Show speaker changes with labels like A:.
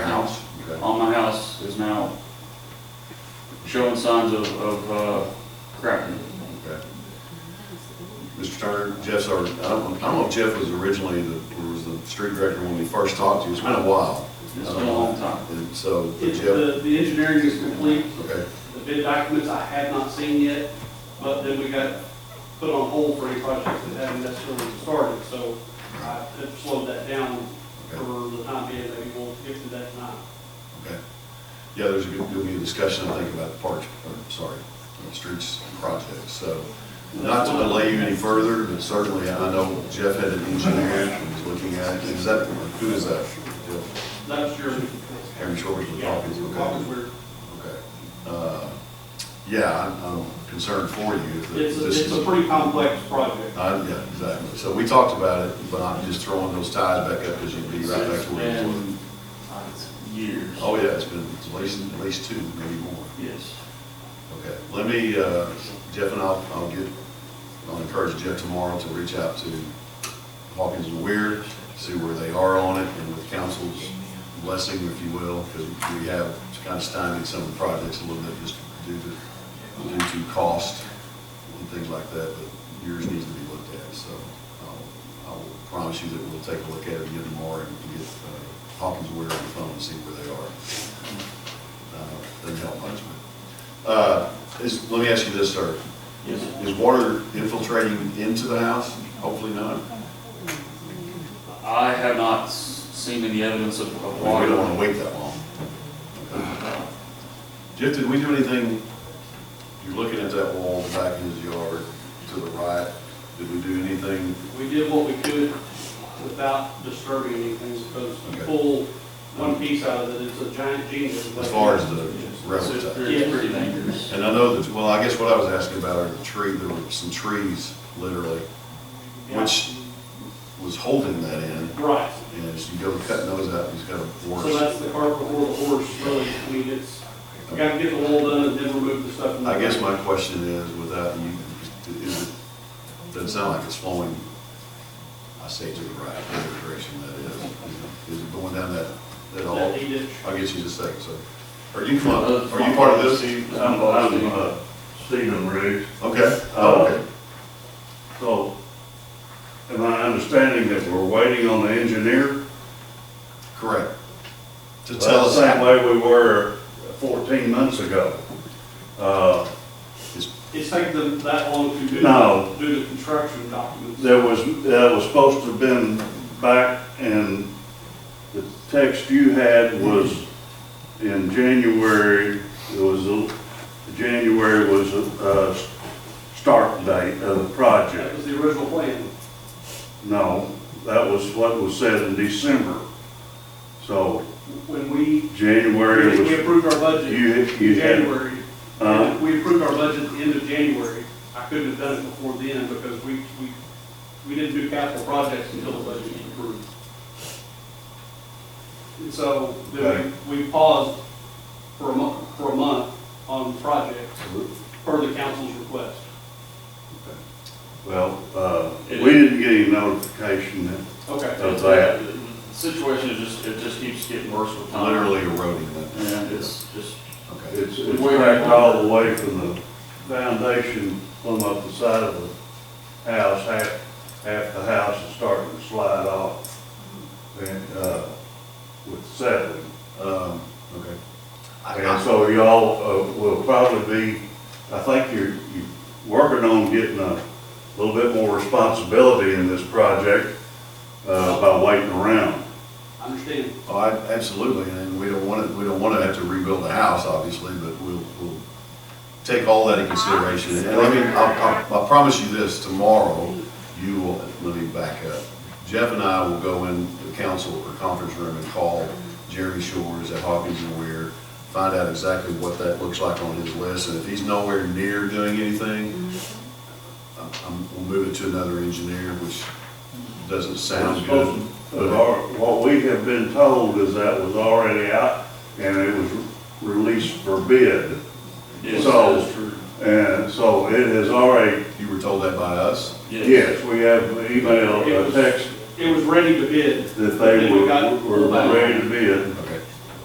A: now showing signs of, of uh, cracking.
B: Okay. Mr. Turner, Jeff's our, I don't, I don't know if Jeff was originally the, or was the street director when we first talked to you, it's been a while. Uh,
A: It's been a long time.
B: And so, but
C: It's,
B: Jeff,
C: the, the engineering is complete,
B: okay,
C: the bid documents I have not seen yet, but then we got put on hold for any projects that haven't necessarily started, so I have slowed that down for the time being, maybe we'll get to that tonight.
B: okay. Yeah, there's, a good- there'll be a discussion, I think, about the parks, or, sorry, the streets project, so. Not to delay you any further, but certainly, I know Jeff had an engineer who was looking at it, is that, who is that? Jeff?
C: That's your.
B: Aaron Shores with
C: Yeah,
B: copies, okay.
C: copies were-
B: Okay. Uh, Yeah, I'm- I'm concerned for you. that
C: It's, a-
B: this
C: it's
B: is-
C: a pretty complex project.
B: Uh, Yeah, exactly. So we talked about it, but I'm just throwing those ties back up because you'd be right back
A: It's
B: to where you were.
A: been uh, years.
B: Oh, yeah, it's been at least, at least two, maybe more.
A: Yes.
B: Okay, let me, uh, Jeff and I'll, I'll get, I'll encourage Jeff tomorrow to reach out to Hawkins and Weird, see where they are on it, and with council's blessing, if you will, because we have kind of stymied some of the projects a little bit just due to, due to cost and things like that, but yours needs to be looked at, so I'll, I will promise you that we'll take a look at it again tomorrow and get uh, Hawkins and Weird on the phone and see where they are uh, doesn't help much. but, Uh, is, let me ask you this, sir. Is, is water infiltrating into the house? Hopefully not.
A: I have not s- seen any evidence of
B: We
A: of water.
B: don't want to wait that long. Jeff, did we do anything, you're looking at that wall back in his yard to the right, did we do anything?
C: We did what we could without disturbing anything, because
B: Okay.
C: to pull one piece out of it, it's a giant genius.
B: As far as the
A: It's
B: railroad
A: it's
B: ties?
A: pretty it's pretty dangerous.
B: And I know that, well, I guess what I was asking about are the tree, there were some trees, literally,
C: Yeah.
B: which was holding that in.
C: Right,
B: And as you go cutting those out, he's got a
C: so
B: worse.
C: that's the cart before the horse, really, I mean, it's, we gotta get the wall done and then remove the stuff. from the-
B: I guess my question is, without you, is it, doesn't sound like it's flowing, I say to the right, whatever direction that is. Is it going down that, that all?
C: That he ditch.
B: I'll get you just a second, so. Are you, from- are you part of this?
D: I'm, I'm, uh, Stephen Riggs.
B: Okay, oh, okay.
D: So, am I understanding that we're waiting on the engineer?
B: Correct. To tell us,
D: Same way we were fourteen months ago. Uh,
C: It's taken them that long to do.
D: No.
C: Do the construction documents.
D: there was, that was supposed to have been back in, the text you had was in January, it was, a- January was, uh, start date of the project.
C: That was the original plan.
D: No, that was what was said in December. So
C: When we,
D: January
C: we
D: was,
C: approved our budget
D: you,
C: in
D: you had,
C: January.
D: uh,
C: We approved our budget at the end of January. I couldn't have done it before then because we, we, we didn't do capital projects until the budget was approved. And so then we, we paused for a month, for a month on projects per the council's request.
D: well, uh, we didn't get any notification that
C: Okay.
D: Of that.
A: The situation is just, it just keeps getting worse with time.
B: literally eroding that.
A: And it's just,
B: Okay,
D: it's, it's cracked all the way from the foundation, plumb up the side of the house, half, half the house is starting to slide off. And, uh, with settling.
B: um, okay. I- I-
D: And so y'all uh, will probably be, I think you're, you're working on getting a little bit more responsibility in this project uh, by waiting around.
C: I understand.
B: Oh, I- absolutely, and we don't want to, we don't want to have to rebuild a house, obviously, but we'll, we'll take all that in consideration. And let me, I'll- I'll- I promise you this, tomorrow, you will, let me back up. Jeff and I will go in the council or conference room and call Jerry Shores at Hawkins and Weir, find out exactly what that looks like on his list, and if he's nowhere near doing anything, I'm- I'm, we'll move it to another engineer, which doesn't sound good.
D: But uh, our- what we have been told is that was already out and it was released for bid.
A: it's,
D: So-
A: it's true.
D: And so it has already,
B: You were told that by us?
D: yes, we have email, a text
C: It was ready to bid.
D: that they were, were ready to bid.